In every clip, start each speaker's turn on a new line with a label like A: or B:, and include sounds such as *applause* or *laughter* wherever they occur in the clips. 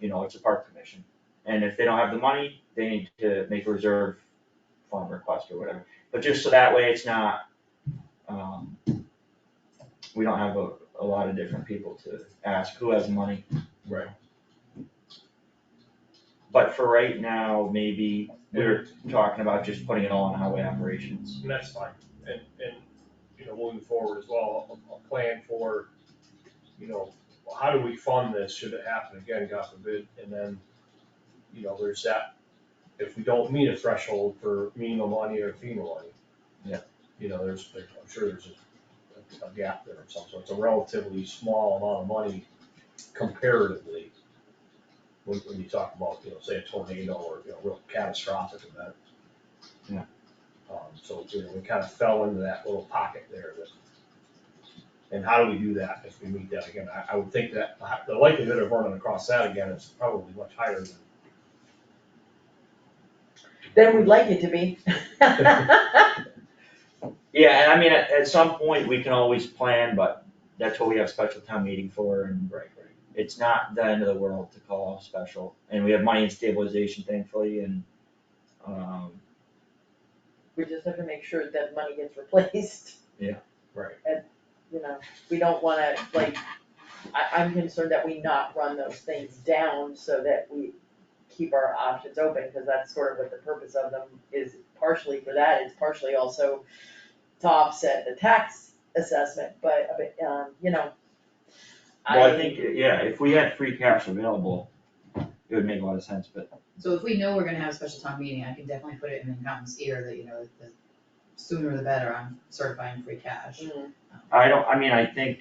A: you know, it's a park commission. And if they don't have the money, they need to make a reserve fund request or whatever, but just so that way it's not, um, we don't have a, a lot of different people to ask who has money.
B: Right.
A: But for right now, maybe we're
B: We're,
A: talking about just putting it all on highway operations.
B: and that's fine, and, and, you know, moving forward as well, a, a plan for, you know, how do we fund this, should it happen again, God forbid, and then, you know, there's that, if we don't meet a threshold for minimum money or FEMA money.
A: Yeah.
B: You know, there's, there- I'm sure there's a, a gap there of some sort, it's a relatively small amount of money comparatively. When, when you talk about, you know, say a tornado or, you know, real catastrophic event. Um, so, you know, we kind of fell into that little pocket there that. And how do we do that if we meet that again? I, I would think that the likelihood of running across that again is probably much higher than.
C: Then we'd like it to
A: *laughs*
C: be.
A: Yeah, and I mean, at, at some point, we can always plan, but that's what we have special town meeting for, and
B: Right, right.
A: it's not the end of the world to call off special. And we have money in stabilization thankfully, and, um,
C: We just have to make sure that money gets replaced, *laughs*
B: Right.
C: you know, we don't wanna, like, I, I'm concerned that we not run those things down so that we keep our options open, cause that's sort of what the purpose of them is partially for that, it's partially also to offset the tax assessment, but, but, um, you know.
A: well, I think, yeah, if we had free cash available, it would make a lot of sense, but
D: So if we know we're gonna have a special town meeting, I can definitely put it in Mountain's ear that, you know, the sooner the better on certifying free cash.
C: Mm,
A: I don't, I mean, I think,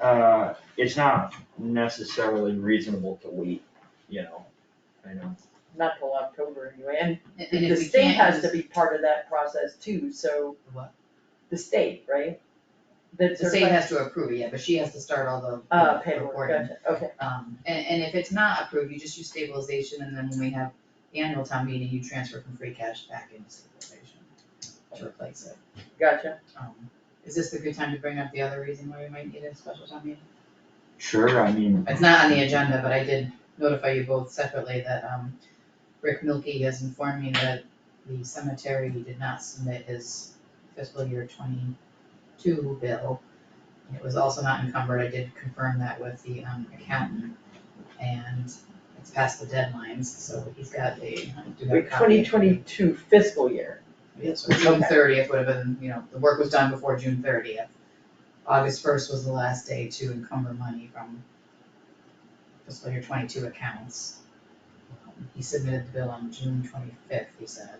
A: uh, it's not necessarily reasonable to wait, you know, I know.
C: Not till October anyway, and
D: And and
C: the
D: if we
C: state
D: can't
C: has
D: use.
C: to be part of that process too, so.
D: What?
C: The state, right? The
D: The state has to approve it, yeah, but she has to start all the.
C: Uh,
D: the
C: paperwork,
D: reporting.
C: gotcha, okay,
D: Um, and, and if it's not approved, you just use stabilization, and then when we have the annual town meeting, you transfer from free cash back into stabilization to replace it.
C: gotcha.
D: Um, Is this a good time to bring up the other reason why we might need a special town meeting?
A: Sure, I mean,
D: It's not on the agenda, but I did notify you both separately that, um, Rick Milkie has informed me that the cemetery did not submit his fiscal year twenty-two bill. It was also not encumbered, I did confirm that with the, um, accountant, and it's past the deadlines, so he's got a, I do have a copy.
C: Twenty twenty-two fiscal year,
D: Yeah, so June
C: Okay.
D: thirtieth would have been, you know, the work was done before June thirtieth. August first was the last day to encumber money from fiscal year twenty-two accounts. Um, He submitted the bill on June twenty-fifth, he said.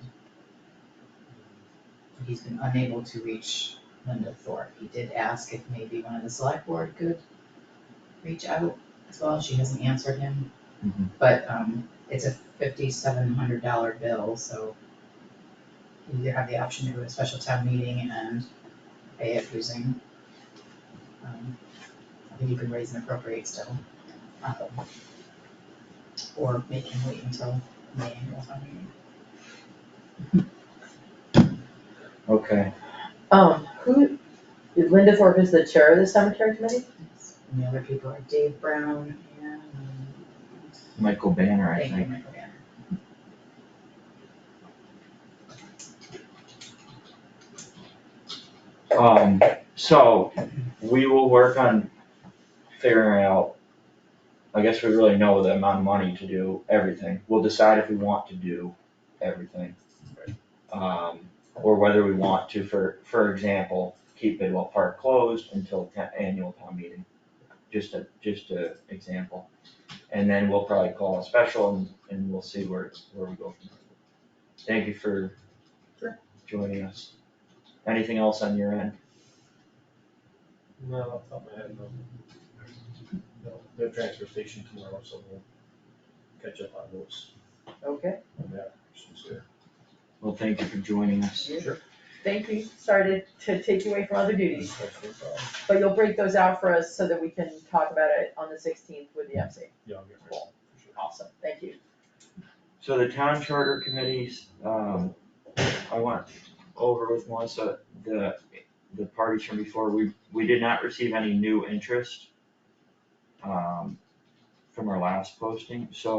D: He's been unable to reach Linda Thorpe. He did ask if maybe one of the select board could reach out as well. She hasn't answered him.
A: Mhm.
D: But, um, it's a fifty-seven hundred dollar bill, so you either have the option to go to a special town meeting and pay it using, um, I think you can raise and appropriate still. um, Or make him wait until the annual town meeting.
A: okay,
C: um, who, Linda Thorpe is the chair of the cemetery committee?
D: And the other people are Dave Brown and,
A: Michael Banner, I
D: thank you,
A: think,
D: Michael Banner.
A: um, so, we will work on figuring out. I guess we really know the amount of money to do everything, we'll decide if we want to do everything. Um, or whether we want to, for, for example, keep Bidwell Park closed until ta- annual town meeting. Just a, just a example, and then we'll probably call a special and, and we'll see where, where we go from there. Thank you for
D: Sure.
A: joining us. Anything else on your end?
B: No, off the top of my head, no. No, no transfer station tomorrow, so we'll catch up on those,
C: Okay,
B: on that, since they're-
A: Well, thank you for joining us.
C: thank you, sorry to, to take you away from other duties,
B: that's no problem.
C: but you'll break those out for us so that we can talk about it on the sixteenth with the MC.
B: Yeah, I'll get rid of it, for sure.
C: Awesome, thank you.
A: So the town charter committees, um, I went over with Melissa, the, the parties from before, we, we did not receive any new interest. Um, from our last posting, so